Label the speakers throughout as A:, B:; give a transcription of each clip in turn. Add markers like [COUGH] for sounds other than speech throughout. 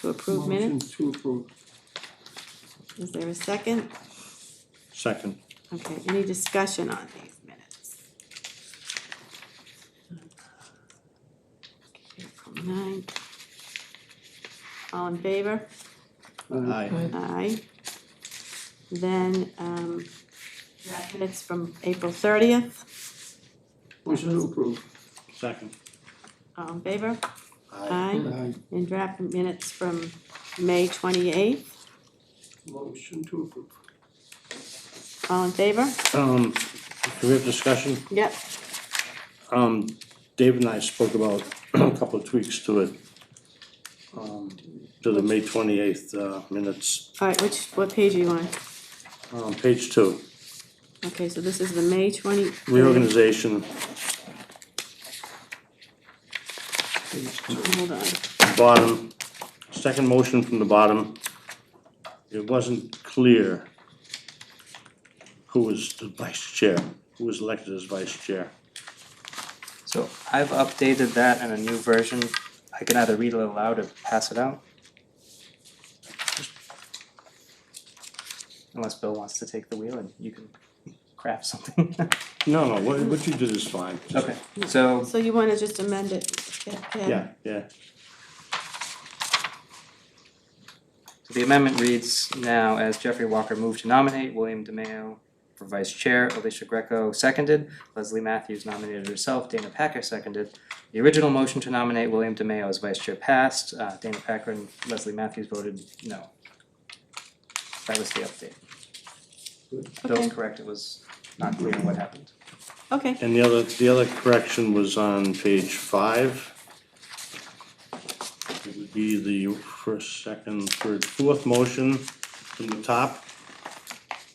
A: to approve minutes.
B: Motion to approve.
A: Is there a second?
C: Second.
A: Okay, any discussion on these minutes? April nine. All in favor?
B: Uh,
C: Aye.
A: Aye. Then, um, draft minutes from April thirtieth,
B: Motion to approve.
C: Second.
A: all in favor? Aye.
B: Aye.
A: And draft minutes from May twenty-eighth,
B: Motion to approve.
A: all in favor?
C: Um, do we have discussion?
A: Yep.
C: Um, Dave and I spoke about [CLEARS THROAT] a couple of tweaks to it. Um, to the May twenty-eighth, uh, minutes,
A: All right, which, what page are you on?
C: um, page two,
A: Okay, so this is the May twenty.
C: reorganization,
B: Page two.
A: Hold on,
C: bottom, second motion from the bottom. It wasn't clear who was the vice chair, who was elected as vice chair.
D: So I've updated that in a new version. I can either read it aloud or pass it out. Unless Bill wants to take the wheel and you can craft something. [LAUGHS]
C: No, no, what, what you did is fine.
D: Okay, so
A: so you wanna just amend it? Yeah,
C: Yeah, yeah,
D: the amendment reads now as Jeffrey Walker moved to nominate William DeMayo for vice chair, Alicia Greco seconded, Leslie Matthews nominated herself, Dana Packer seconded. The original motion to nominate William DeMayo as vice chair passed, uh, Dana Packer and Leslie Matthews voted no. That was the update. Bill's
A: Okay,
D: correct, it was not clear what happened.
A: okay,
C: and the other, the other correction was on page five. It would be the first, second, third, fourth motion from the top.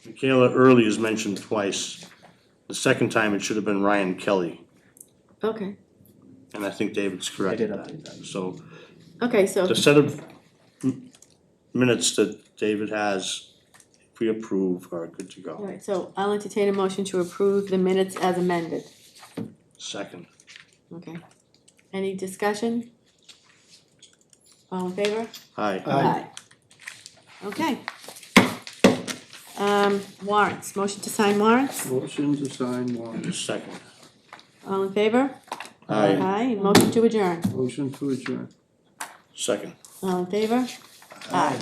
C: Michaela Early is mentioned twice. The second time, it should have been Ryan Kelly,
A: okay,
C: and I think David's
D: I did
C: corrected that.
D: update that.
C: So
A: okay, so,
C: the set of m- minutes that David has, if we approve, are good to
A: all
C: go.
A: right, so I'll entertain a motion to approve the minutes as amended,
C: Second.
A: okay? Any discussion? All in favor?
C: Aye.
B: Aye.
A: Okay. Um, warrants, motion to sign warrants,
B: Motion to sign warrant.
C: Second.
A: all in favor?
C: Aye.
A: Aye, and motion to adjourn,
B: Motion to adjourn.
C: Second.
A: all in favor? Aye.